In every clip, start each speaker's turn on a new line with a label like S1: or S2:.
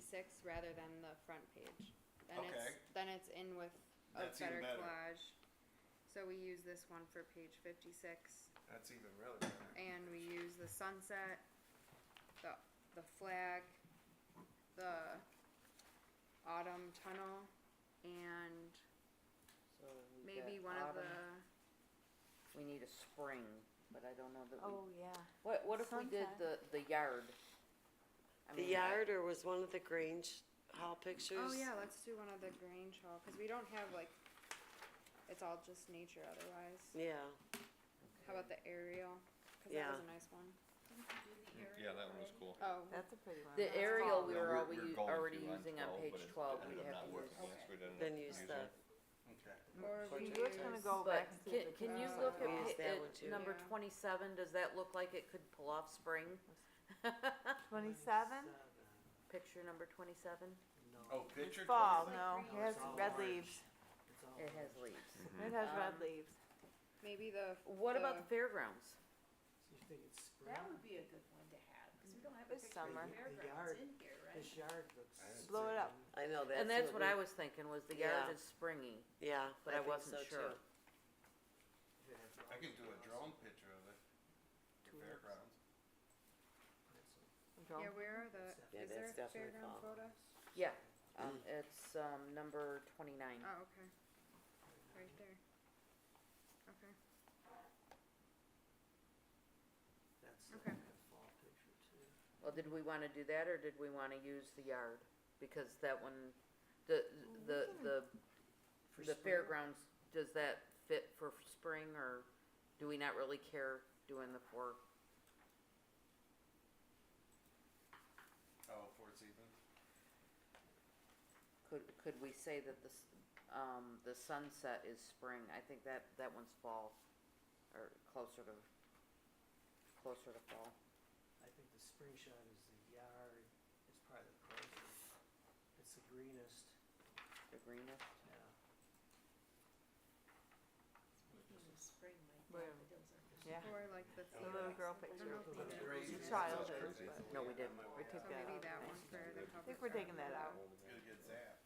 S1: six rather than the front page. Then it's,
S2: Okay.
S1: then it's in with a
S2: That's even
S1: better
S2: better.
S1: collage. So we use this one for page fifty-six
S3: That's even really better.
S1: and we use the sunset, the, the flag, the autumn tunnel and
S4: So we
S1: maybe
S4: got
S1: one of
S4: autumn.
S1: the, oh,
S4: We need a spring, but I don't know that we,
S5: Oh, yeah.
S4: what, what if we did the,
S5: Sunset.
S4: the yard? I
S6: The
S4: mean, I-
S6: yard or was one of the Grange Hall pictures?
S1: oh yeah, let's do one of the Grange Hall, cause we don't have like, it's all just nature otherwise.
S6: Yeah,
S1: How about the aerial? Cause that
S6: Yeah.
S1: was a nice one.
S2: Yeah, that one was cool.
S1: Oh,
S5: That's a pretty one.
S4: The aerial Oh, we
S2: No,
S4: were already,
S2: we're-
S4: u-
S2: we're going
S4: already
S2: through on
S4: using on
S2: 12,
S4: page
S2: but it
S4: twelve,
S2: ended
S4: we'd
S2: up
S4: have
S2: not
S4: to
S2: working,
S4: use.
S2: yes, we didn't
S6: then use
S2: use
S6: the,
S2: it.
S3: Okay.
S1: or
S5: So
S1: we
S5: you were gonna
S1: use-
S5: go
S4: But
S5: back to
S4: can,
S5: the
S4: can you
S1: pictures.
S4: look
S1: We
S6: used
S4: at, pa-
S6: that one
S4: at
S6: too.
S4: number
S1: Yeah.
S4: twenty-seven, does that look like it could pull off spring?
S5: Twenty-seven?
S4: Picture number twenty-seven,
S3: Oh, picture
S5: Fall,
S3: twenty.
S5: no, it has red leaves.
S4: it has leaves.
S5: It has red
S4: Um,
S5: leaves.
S1: maybe the.
S4: What about the fairgrounds?
S7: So you think it's spring?
S8: That would be a good one to have, because we don't have a
S5: This
S8: picture of
S5: summer.
S8: the fairgrounds
S7: yard.
S8: in here, right?
S7: This yard looks.
S3: I had
S5: Blow it up.
S3: something.
S6: I know that's.
S4: And that's what
S6: we-
S4: I was thinking, was the yard
S6: Yeah.
S4: is springy,
S6: Yeah.
S4: but I
S6: think
S4: wasn't
S6: so,
S4: sure.
S6: too.
S7: It has
S3: I can do a
S7: flowers.
S3: drone picture of it. The
S7: Tulips.
S3: fairgrounds.
S7: That's a-
S1: Yeah, where are the,
S6: Yeah,
S1: is there
S6: that's
S1: a
S6: definitely
S1: fairground
S6: fall.
S1: photo?
S4: Yeah. Um, it's, um, number twenty-nine.
S1: Oh, okay, right there. Okay,
S7: That's the
S1: Okay.
S7: the fall picture too.
S4: Well, did we wanna do that, or did we wanna use the yard? Because that one, the, the, the,
S7: For
S4: the
S7: spring,
S4: fairgrounds, does that fit for spring, or do we not really care doing the four?
S3: Oh, Fort Stevens.
S4: Could, could we say that this, um, the sunset is spring? I think that, that one's fall, or closer to, closer to fall.
S7: I think the spring shot is the yard, it's probably the closest, it's the greenest,
S4: The greenest?
S7: yeah.
S8: Speaking of spring, my
S5: Where-
S8: daffodils are.
S5: Yeah.
S1: or like the.
S5: The little
S1: fields.
S5: girl
S1: I don't
S5: picture.
S1: know if we did.
S3: Crazy.
S5: It's childhood,
S3: That's crazy.
S5: but-
S4: No, we didn't.
S5: We
S1: So
S5: took that
S1: maybe
S5: out.
S1: that one for the cover.
S5: I think we're
S1: photo.
S5: taking that out.
S3: Gonna get zapped.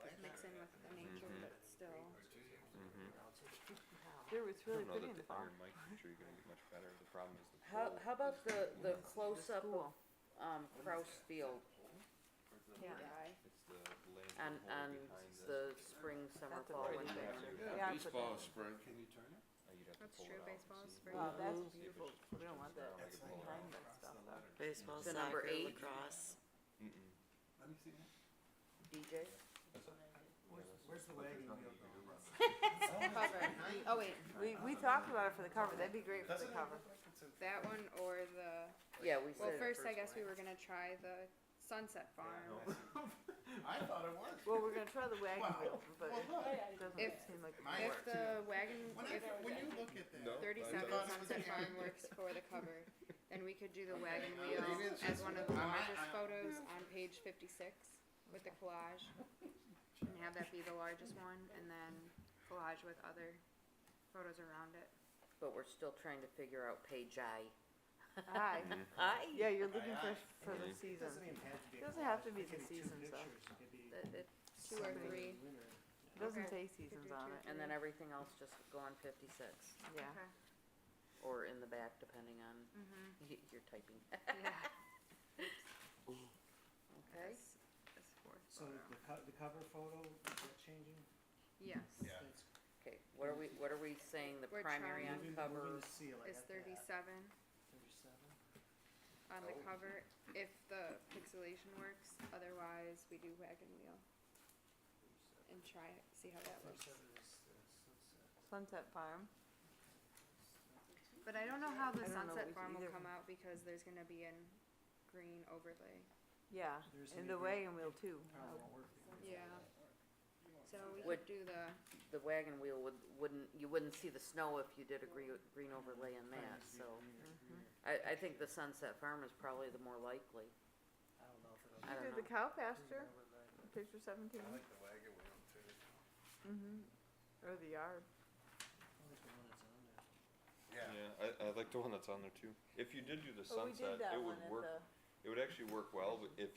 S3: Like
S1: It Mix in with the nature,
S3: Mm-hmm.
S2: Mhm.
S1: but still.
S3: Or Tuesday.
S5: Dude, it's really pretty in the
S2: the
S5: fall.
S2: Iron Mike picture you're gonna get much better, the problem is the
S4: How,
S2: pole
S4: how about
S2: is
S4: the, the
S2: wooden.
S4: close-up of,
S5: Cool.
S4: um, Kraus Field
S3: Or is it-
S5: Yeah.
S1: Die.
S2: It's the land
S4: on,
S2: pole
S4: on
S2: behind
S4: the spring, summer,
S5: That's a
S4: fall
S5: pretty
S4: winter?
S5: picture.
S2: Yeah,
S5: Yeah, I put
S9: Baseball
S5: that
S9: is
S5: in.
S9: spring.
S3: Can you turn it?
S2: Uh, Oh, you'd have to
S1: That's
S2: pull it
S1: true,
S2: out and
S1: baseball
S2: see.
S1: is spring.
S5: Wow,
S6: Mhm.
S5: that's
S2: See if
S5: beautiful.
S2: it's
S5: We don't want that.
S2: down, I
S3: It's
S2: could
S3: like
S2: pull it
S5: behind
S2: out.
S5: that stuff, though.
S6: Baseball,
S4: So number
S6: soccer,
S4: eight.
S6: lacrosse.
S2: Mm-mm.
S3: Let me see that.
S4: DJ?
S2: That's a-
S7: Where's,
S2: that's
S7: where's the
S2: what they're
S7: wagon
S2: telling
S7: wheel
S2: you to do,
S7: going?
S2: Robert.
S1: Oh, wait,
S5: We, we talked about it for the cover, that'd be great for the
S3: Doesn't it
S5: cover.
S3: look like it's a-
S1: that one or the,
S4: Yeah, we
S1: well,
S4: said,
S1: first I
S3: first
S1: guess we
S3: one.
S1: were gonna try the Sunset Farm.
S3: I thought it was.
S5: Well, we're gonna try the wagon wheel, but
S3: Well, look.
S5: it doesn't
S1: If-
S5: seem like.
S3: My
S1: If
S3: work.
S1: the wagon,
S3: When I,
S1: if
S3: when you look at that.
S9: No.
S1: thirty-seven
S3: Thought it was
S1: Sunset
S3: a
S1: Farm
S3: hand.
S1: works for the cover, then we could do the
S3: Okay,
S1: wagon
S3: now
S1: wheel
S3: maybe it's
S1: as
S3: just-
S1: one of the
S3: I- I-
S1: largest
S3: I-
S1: photos on page fifty-six with the collage. And have that be the largest one, and then collage with other photos around it.
S4: but we're still trying to figure out page I.
S5: Hi,
S4: I?
S5: yeah, you're looking for,
S3: Aye,
S5: for
S3: Mm-hmm.
S5: the
S2: Mhm.
S7: It
S5: season.
S7: doesn't even have to be. a
S5: Doesn't have to be
S7: collage. It
S5: the
S7: could two
S5: seasons, though.
S7: pictures. It could be
S4: That- it-
S1: Two or
S7: summer and
S1: three.
S7: winter.
S5: It Doesn't
S1: Okay.
S5: say seasons
S1: do
S5: on
S1: two.
S5: it,
S4: And then everything else just go on fifty-six,
S5: yeah.
S1: Okay.
S4: or in the back, depending on
S1: Mm-hmm,
S4: y- your typing.
S1: yeah.
S4: Okay.
S1: This- this fourth
S7: So
S1: photo.
S7: the co- the cover photo, is that changing?
S1: Yes,
S3: Yeah.
S7: That's
S4: Okay, what are we, what are we saying, the
S1: We're
S4: primary on
S1: trying-
S7: Moving-
S4: cover?
S7: moving the seal, I
S1: it's
S7: got that.
S1: thirty-seven
S7: Thirty-seven.
S1: on the
S3: Oh.
S1: cover, if the pixelation works, otherwise we do wagon wheel and try it, see how that looks.
S7: Thirty-seven is the
S5: Sunset
S7: sunset.
S5: Farm,
S1: But I don't know how the
S5: I don't know
S1: sunset
S5: if
S1: farm will
S5: either
S1: come out because there's gonna be an green overlay.
S5: yeah,
S7: There's Oh.
S5: and the
S7: gonna be-
S5: wagon wheel too.
S7: Probably won't work.
S1: Yeah. So we
S4: Would-
S1: could do the,
S4: The wagon wheel would, wouldn't, you wouldn't see the snow if you did a green, green overlay in that, so. mm-hmm. I, I think the Sunset Farm is probably the more likely.
S7: I don't know if it'll.
S4: I
S5: You
S4: don't
S5: did
S4: know.
S5: the cow
S7: Who's
S5: pasture,
S7: gonna overlay it?
S5: picture seventeen,
S3: I like the wagon wheel too.
S5: mm-hmm, or the yard.
S7: I like the one that's on there.
S3: Yeah.
S2: Yeah, I, I like the one that's on there too. If you did do the
S5: Oh, we did
S2: sunset,
S5: that
S2: it
S5: one
S2: would
S5: at
S2: work,
S5: the-
S2: it would actually work well, but if